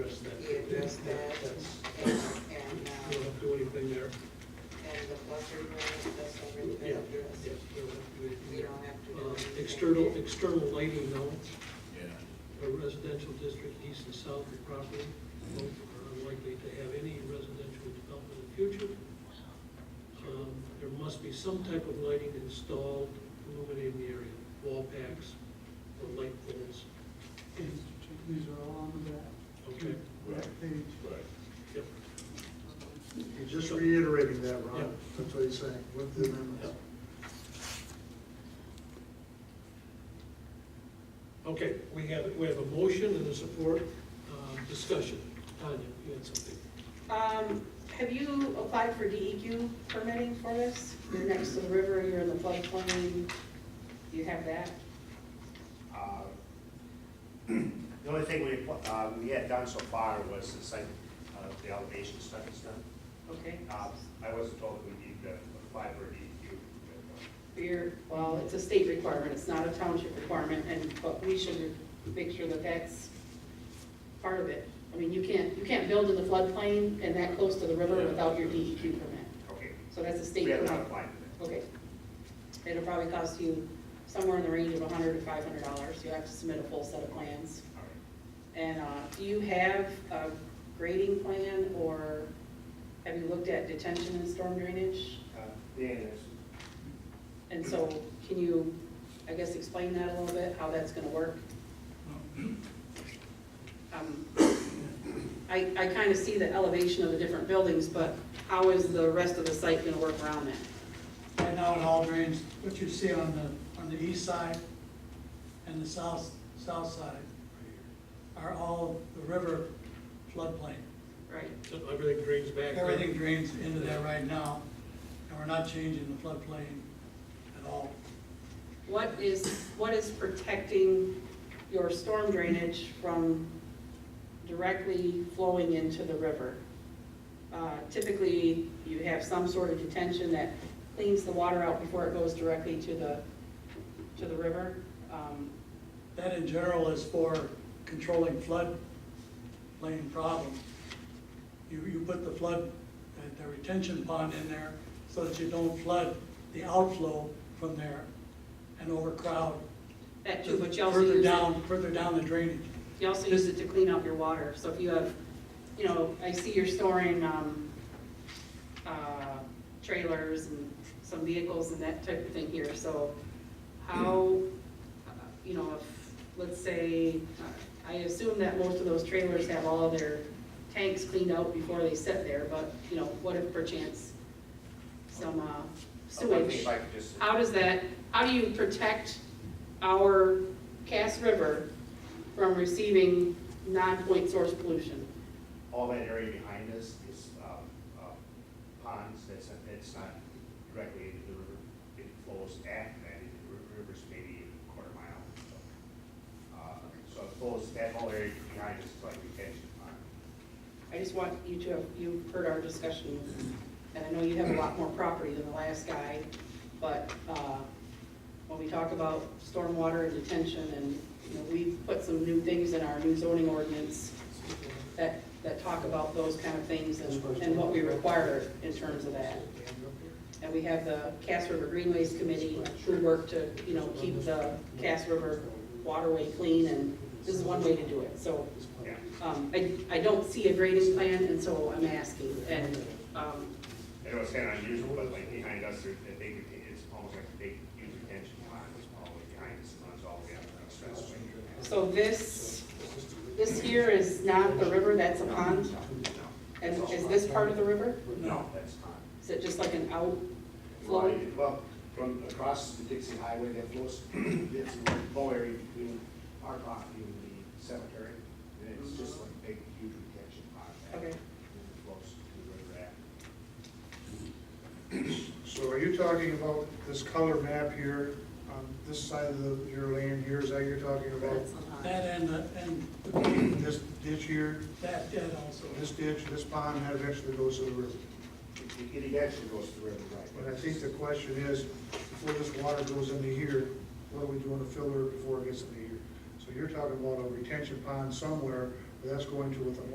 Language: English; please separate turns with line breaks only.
address that, and,
We
and,
don't
uh,
have to do anything there.
and the buffer zone, that's already
Yeah,
been addressed.
yes, we don't have to do anything
We
there.
don't have to do
Uh,
anything.
External, external lighting though,
Yeah,
a residential district east and south of property, both are unlikely to have any residential development in the future. Um, There must be some type of lighting installed illuminating the area, wall packs or light poles.
These are all on the back.
Okay.
Back page.
right.
Yep.
You're just reiterating that,
Yeah.
Ron, that's what he's saying, with the amendments.
Okay, we have, we have a motion and a support, uh, discussion. Tanya, you had something?
Um, have you applied for DEQ permitting for this? You're next to the river, you're in the floodplain, you have that?
Uh, The only thing we, uh, we had done so far was the site, uh, the elevation studies done.
Okay.
Uh, I wasn't told that we need to apply for a DEQ. but,
Beer, well, it's a state requirement, it's not a township requirement, and, but we should make sure that that's part of it. I mean, you can't, you can't build in the floodplain and that close to the river without your DEQ permit,
uh, Okay,
so that's a state
we have not
requirement.
applied for
Okay. It'll probably cost you somewhere in the range of hundred to five hundred dollars, you have to submit a full set of plans.
that, all right.
And uh, do you have a grading plan, or have you looked at detention and storm drainage?
Uh, Dan is,
And so, can you, I guess, explain that a little bit, how that's gonna work? Um, I, I kind of see the elevation of the different buildings, but how is the rest of the site gonna work around that?
Right now, it all drains, what you see on the, on the east side and the south, south side are all the river floodplain.
Right.
So everything drains back. there.
Everything drains into that right now, and we're not changing the floodplain at all.
What is, what is protecting your storm drainage from directly flowing into the river? Uh, Typically, you have some sort of detention that cleans the water out before it goes directly to the, to the river. Um,
That in general is for controlling floodplain problems. You, you put the flood, uh, the- the retention pond in there so that you don't flood the outflow from there and overcrowd.
That too, but you also
Further
use it,
down, further down the drainage.
you also use it to clean out your water. So if you have, you know, I see you're storing um, uh, trailers and some vehicles and that type of thing here, so how, uh, you know, if, let's say, uh, I assume that most of those trailers have all their tanks cleaned out before they sit there, but, you know, what if perchance some uh,
I think
sewage?
if I could just,
How does that, how do you protect our Cass River from receiving non-point source pollution?
all that area behind us is um, uh, ponds, that's, it's not directly into the river. It flows at that, into the ri- river's maybe a quarter mile. Uh, So it flows, that whole area behind us is like retention pond.
I just want you to have, you've heard our discussion, and I know you have a lot more property than the last guy, but, uh, when we talk about stormwater and detention, and, you know, we've put some new things in our new zoning ordinance that, that talk about those kind of things and, and what we require in terms of that. And we have the Cass River Greenways Committee who work to, you know, keep the Cass River waterway clean, and this is one way to do it, so.
Yeah.
Um, I, I don't see a grading plan, and so I'm asking, and, um,
And it was kind of unusual, but like behind us, there- that big, it's almost like a big, huge retention pond, it's all the way behind us, and runs all the way up to the expressway.
so this, this here is not the river, that's a pond? And is this part of the river?
No, that's not.
Is it just like an out
Well,
flow?
it- Well, from across the Dixie Highway that flows, it's a low area between our property and the cemetery. And it's just like a big, huge retention pond. that-
Okay.
And it flows to the river after.
So are you talking about this color map here, on this side of the, your land here, is that you're talking about?
That's a pond.
That and, the- and
This ditch here,
that, that also.
this ditch, this pond, that eventually goes to the river.
It- It eventually goes to the river, right?
But I think the question is, before this water goes into here, what are we doing to fill it before it gets into here? So you're talking about a retention pond somewhere, where that's going to with a